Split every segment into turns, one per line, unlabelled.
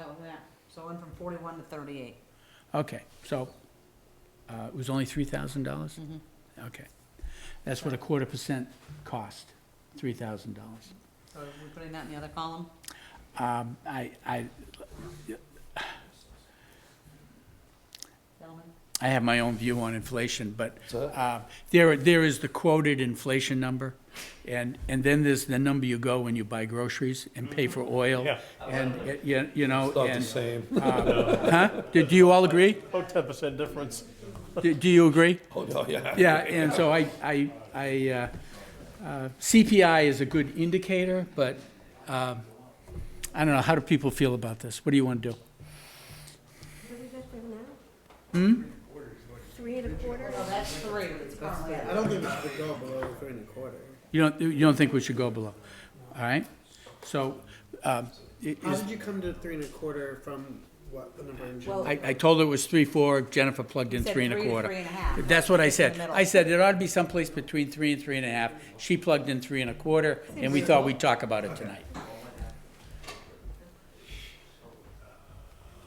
out with that. So it went from forty-one to thirty-eight.
Okay, so, uh, it was only three thousand dollars? Okay. That's what a quarter percent cost, three thousand dollars.
So are we putting that in the other column?
Um, I, I,
Gentlemen?
I have my own view on inflation, but
So-
uh, there, there is the quoted inflation number, and, and then there's the number you go when you buy groceries and pay for oil.
Yeah.
And, uh, you you know,
Not the
and-
same.
huh? Do do you all agree?
Oh, 10% difference.
Do- Do you agree?
Oh, no, yeah.
Yeah, and so I, I, I, uh, uh, CPI is a good indicator, but, um, I don't know, how do people feel about this? What do you want to do?
What is that thing now? Three and a quarter?
Well, Oh, that's three that's currently.
I don't think it should go below three and a quarter.
You don't, you don't think we should go below, all right? So, um, it
How
is,
did you come to three and a quarter from what the number in general?
Well,
I, I told her it was three, four, Jennifer plugged in
Said
three and a
three to
quarter.
three and a half.
That's what I said.
In the middle.
I said it ought to be someplace between three and three and a half. She plugged in three and a quarter, and we thought we'd talk about it tonight.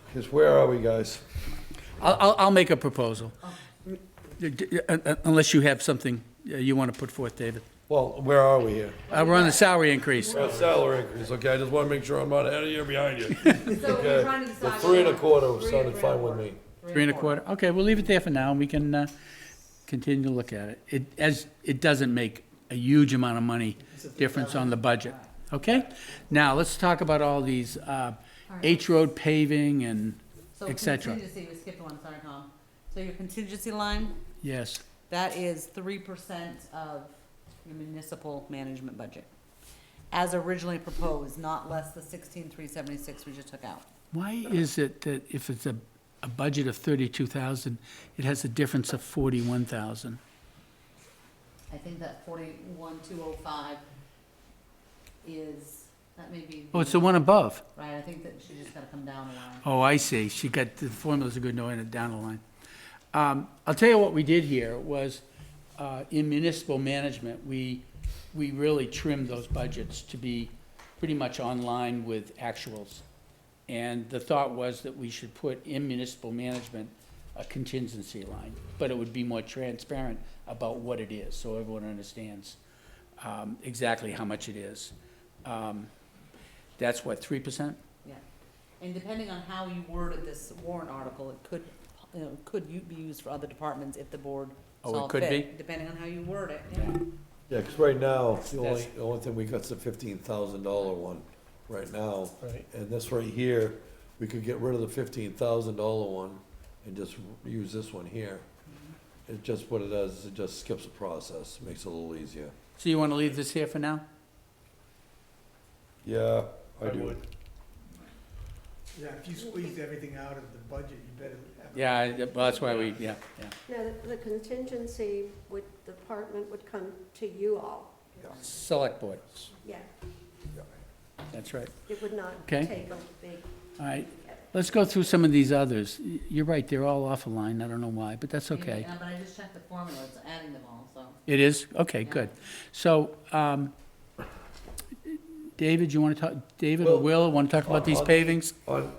Because where are we, guys?
I'll, I'll, I'll make a proposal. D- d- uh, uh, Unless you have something uh, you want to put forth, David.
Well, where are we here?
Uh, we're on the salary increase.
Well, Salary increase, okay, I just want to make sure I'm not out of here behind you.
So
Okay.
we're trying to
The
decide.
three and a
whether-
quarter
three
sounded
or
fine with me.
Three and a quarter. Okay, we'll leave it there for now, and we can, uh, continue to look at it. It, as, it doesn't make a huge amount of money difference on the budget, okay? Now, let's talk about all these, uh, H Road paving and
So
et cetera.
contingency, we skipped one, sorry, Tom. So your contingency line,
Yes,
that is three percent of your municipal management budget. As originally proposed, not less the sixteen three seventy-six we just took out.
why is it that if it's a, a budget of thirty-two thousand, it has a difference of forty-one thousand?
I think that forty-one two oh five is, that may be.
Oh, it's the one above.
Right, I think that she just gotta come down a line.
Oh, I see. She got, the formulas are good, no, and it down the line. Um, I'll tell you what we did here was, uh, in municipal management, we, we really trimmed those budgets to be pretty much on line with actuals. And the thought was that we should put in municipal management a contingency line, but it would be more transparent about what it is, so everyone understands, um, exactly how much it is. Um, That's what, three percent?
Yeah, and depending on how you worded this warrant article, it could, you know, could you be used for other departments if the board
Oh, it
saw
could
fit, depending on how you word it. yeah.
Yeah, because right now, the only,
That's-
the only thing we got's the fifteen thousand dollar one right now.
Right.
And this right here, we could get rid of the fifteen thousand dollar one and just use this one here. It just, what it does, is it just skips the process, makes it a little easier.
So you want to leave this here for now?
Yeah, I
I
do.
would.
Yeah, if you squeezed everything out of the budget, you better have.
Yeah, I- well, that's why we, yeah, yeah.
No, the- the contingency would, the department would come to you all.
Select board,
Yeah,
that's right.
it would not
Okay.
take a big,
All right, let's go through some of these others. Y- You're right, they're all off a line, I don't know why, but that's okay.
Yeah, But I just checked the formula, it's adding them all, so.
It is? Okay, good. So, um, David, you want to talk, David or Will, want to talk about these pavings?
On,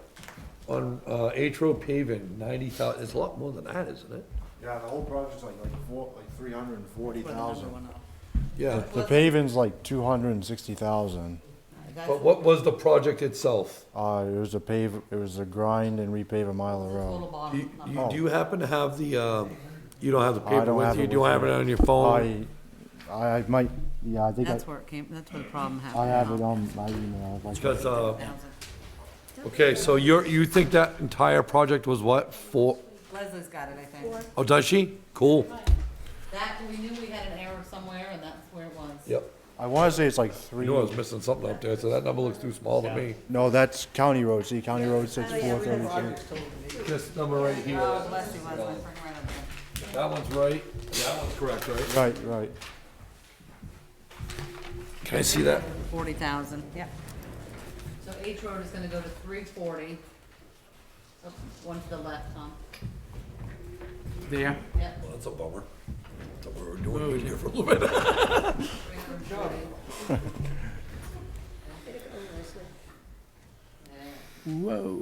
on, uh, H Road paving, ninety thou, it's a lot more than that, isn't it?
Yeah, the whole project's like, like four, like three hundred and forty
for the number
thousand.
one up.
Yeah,
The paving's like two hundred and sixty thousand.
That's-
but what was the project itself?
Uh, it was a pave, it was a grind and repave a mile of
that's the total
road.
Do
bottom
you,
number.
you- do you happen to have the, um, you don't have the
Oh. I
paper
don't
with
have
you,
it
do you
with
have
me.
it on your phone?
I, Oh. I I might, yeah, I think I,
That's where it came, that's where the problem happened.
I have it
huh?
on my email. if I can-
Because, uh,
Thousand.
okay, so you're, you think that entire project was what, four?
Leslie's got it, I think.
Oh, does she? Cool.
That, we knew we had an error somewhere, and that's where it was.
Yep.
I wanna say it's like
You
three,
know I was missing something up there, so that number looks too small to me.
no, that's county road, see, county road six four thirty-three.
This number right here,
Oh, bless you, Leslie, bring her right up there.
that one's right, that one's correct, right?
Right, right.
Can I see that?
Forty thousand. Yeah. So H Road is gonna go to three forty. Oh, One to the left, Tom.
There.
Yep.
Well, that's a bummer. That's what we were doing in here for a little bit.
340.
Way to go, Leslie.
Whoa.